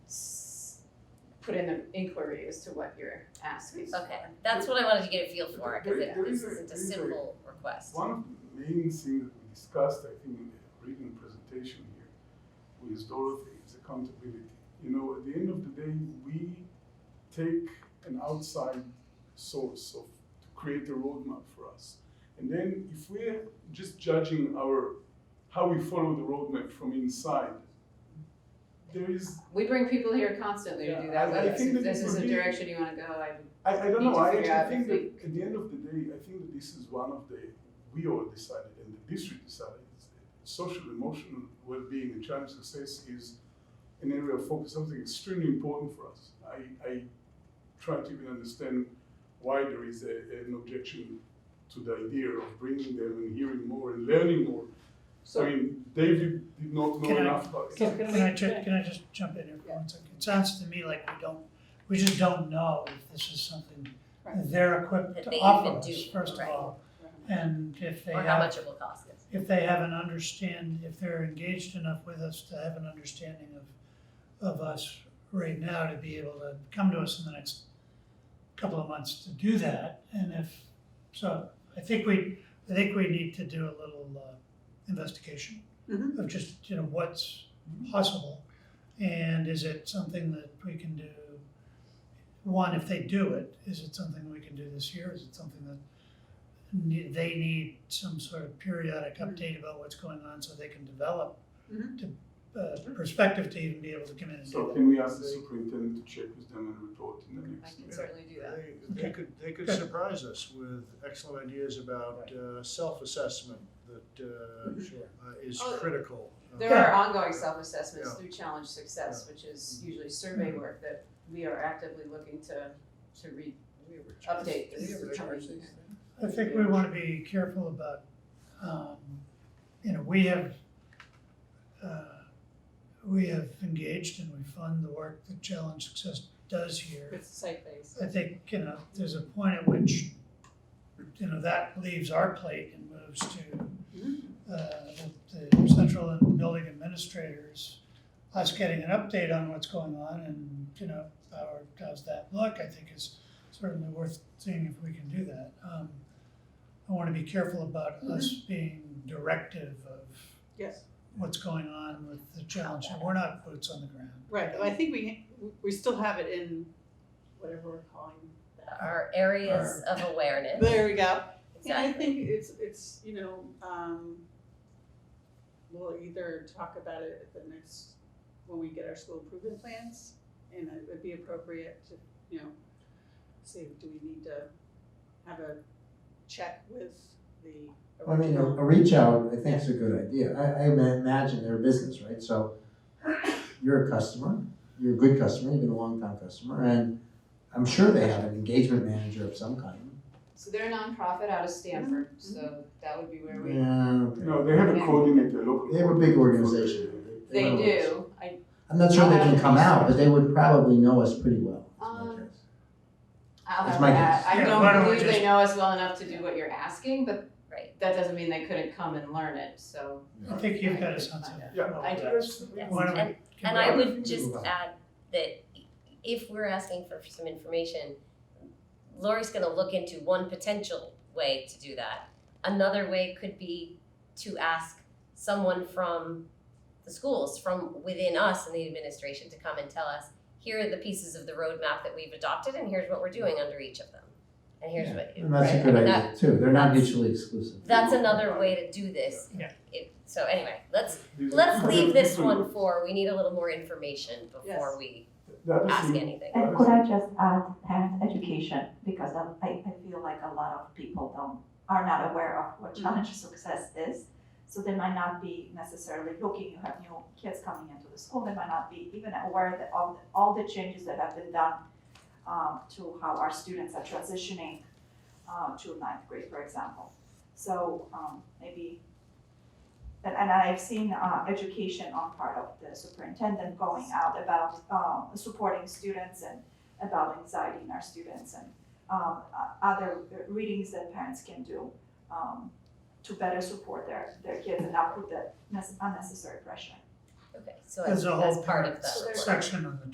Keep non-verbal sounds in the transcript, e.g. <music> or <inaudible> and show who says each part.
Speaker 1: put in an inquiry as to what you're asking.
Speaker 2: Okay, that's what I wanted to get a feel for,
Speaker 3: There-
Speaker 2: because it,
Speaker 3: there
Speaker 2: this
Speaker 3: is
Speaker 2: isn't
Speaker 3: a-
Speaker 2: a
Speaker 3: there is a-
Speaker 2: simple request.
Speaker 3: One of the main things that we discussed, I think, in the written presentation here, with Dorothy, is accountability. You know, at the end of the day, we take an outside source of, to create a roadmap for us. And then if we're just judging our, how we follow the roadmap from inside, there is,
Speaker 1: We bring people here constantly to do
Speaker 3: Yeah,
Speaker 1: that,
Speaker 3: I-
Speaker 1: with
Speaker 3: I
Speaker 1: us.
Speaker 3: think
Speaker 1: if
Speaker 3: that
Speaker 1: this
Speaker 3: it
Speaker 1: is
Speaker 3: would
Speaker 1: the
Speaker 3: be-
Speaker 1: direction you wanna go, I,
Speaker 3: I, I don't
Speaker 1: Need
Speaker 3: know,
Speaker 1: to
Speaker 3: I
Speaker 1: figure out
Speaker 3: actually think
Speaker 1: if
Speaker 3: that at the end of the day, I think that this is one of the, we all decided and the district decided, is that social emotional well-being and child success is an area of focus, something extremely important for us. I, I try to even understand why there is a, an objection to the idea of bringing them and hearing more and learning more. I
Speaker 4: So,
Speaker 3: mean, David did not know
Speaker 5: Can I-
Speaker 3: enough about
Speaker 4: so
Speaker 3: it.
Speaker 4: can
Speaker 5: Can I
Speaker 4: we,
Speaker 5: ju- can I just jump in here for one second? It sounds to me like we don't, we just don't know if this is something
Speaker 1: Right.
Speaker 5: they're equipped
Speaker 2: That
Speaker 5: to
Speaker 2: they
Speaker 5: offer
Speaker 2: even
Speaker 5: us,
Speaker 2: do,
Speaker 5: first of
Speaker 2: right.
Speaker 5: all. And if they
Speaker 2: Or how
Speaker 5: have,
Speaker 2: much it will cost us.
Speaker 5: if they have an understand, if they're engaged enough with us to have an understanding of, of us right now to be able to come to us in the next couple of months to do that. And if, so I think we, I think we need to do a little uh, investigation
Speaker 4: Mhm.
Speaker 5: of just, you know, what's possible. And is it something that we can do? One, if they do it, is it something we can do this year? Is it something that ne- they need some sort of periodic update about what's going on so they can develop
Speaker 4: Mhm.
Speaker 5: to, uh, perspective to even be able to come in and do
Speaker 3: So
Speaker 5: that?
Speaker 3: can we ask the superintendent to check with them and report in the
Speaker 1: I
Speaker 3: next?
Speaker 1: can certainly do that.
Speaker 6: They, they
Speaker 5: Okay.
Speaker 6: could, they could
Speaker 5: Good.
Speaker 6: surprise us with excellent ideas about uh, self-assessment that uh, uh, is
Speaker 1: Oh,
Speaker 6: critical. Uh,
Speaker 1: There are ongoing self-assessments
Speaker 6: Yeah.
Speaker 1: through Challenge Success, which is usually survey
Speaker 3: Mm-hmm.
Speaker 1: work that we are actively looking to, to re, update this. coming year.
Speaker 5: I think we wanna be careful about, um, you know, we have, uh, we have engaged and we fund the work that Challenge Success does here.
Speaker 1: It's site-based.
Speaker 5: I think, you know, there's a point at which, you know, that leaves our plate and moves to uh, the the central and building administrators, us getting an update on what's going on and, you know, how does that look, I think is certainly worth seeing if we can do that. Um, I wanna be careful about us being directive of
Speaker 4: Mm-hmm. yes,
Speaker 5: what's going on with the challenge, and we're not boots on the ground.
Speaker 4: right, Well, I think we, we still have it in whatever we're calling that.
Speaker 2: Our areas of awareness,
Speaker 4: There we go. And I
Speaker 1: <laughs>
Speaker 2: exactly.
Speaker 4: think it's, it's, you know, um, we'll either talk about it at the next, when we get our school improvement plans, and it would be appropriate to, you know, say, do we need to have a check with the
Speaker 7: I mean, uh, a,
Speaker 4: original?
Speaker 7: a reach out, I think is a good idea. I, I ma- imagine they're a business, right? So you're a customer, you're a good customer, you've been a long time customer, and I'm sure they have an engagement manager of some kind.
Speaker 1: So they're a nonprofit out of Stanford,
Speaker 4: mm-hmm.
Speaker 1: so that would be where we,
Speaker 7: Yeah, okay.
Speaker 3: No, they have a coordinator, local.
Speaker 7: They have a big organization.
Speaker 1: they
Speaker 7: Well,
Speaker 1: do, I,
Speaker 7: I'm not sure they can come out, but they would probably know us pretty well. is my
Speaker 1: Um,
Speaker 7: guess.
Speaker 1: I'll
Speaker 7: That's
Speaker 1: have
Speaker 7: my
Speaker 1: that.
Speaker 7: guess.
Speaker 1: I
Speaker 5: Yeah, why
Speaker 1: don't
Speaker 5: don't we
Speaker 1: believe they
Speaker 5: just-
Speaker 1: know us well enough to do what you're asking, but
Speaker 2: Right.
Speaker 1: that doesn't mean they couldn't come and learn it, so.
Speaker 5: I think you've got a sense of.
Speaker 3: Yeah.
Speaker 1: I do.
Speaker 5: Why don't we-
Speaker 2: And- And
Speaker 5: can we-
Speaker 2: I
Speaker 3: Yeah.
Speaker 2: would just add that if we're asking for some information, Lori's gonna look into one potential way to do that. Another way could be to ask someone from the schools, from within us and the administration to come and tell us, here are the pieces of the roadmap that we've adopted and here's what we're doing under each of them. And here's what.
Speaker 7: And that's a
Speaker 2: right,
Speaker 7: good
Speaker 2: I mean, that-
Speaker 7: idea too. They're not mutually exclusive.
Speaker 2: That's another way to do this.
Speaker 5: Yeah.
Speaker 2: It- So anyway, let's Let's leave this one for, we need a little more information
Speaker 4: Yes.
Speaker 2: before we
Speaker 3: The other
Speaker 2: ask
Speaker 3: thing-
Speaker 2: anything.
Speaker 8: And could I just add parent education, because I, I I feel like a lot of people don't, are not aware of what challenge success is. So they might not be necessarily looking, you have new kids coming into the school, they might not be even aware that all, all the changes that have been done um, to how our students are transitioning uh, to ninth grade, for example. So um, maybe, and, and I've seen uh, education on part of the superintendent going out about um, supporting students and about anxiety in our students and um, o- other readings that parents can do um, to better support their, their kids and not put that nece- unnecessary pressure.
Speaker 2: Okay, so I think
Speaker 5: There's a
Speaker 2: that's
Speaker 5: whole
Speaker 2: part of the.
Speaker 5: section on the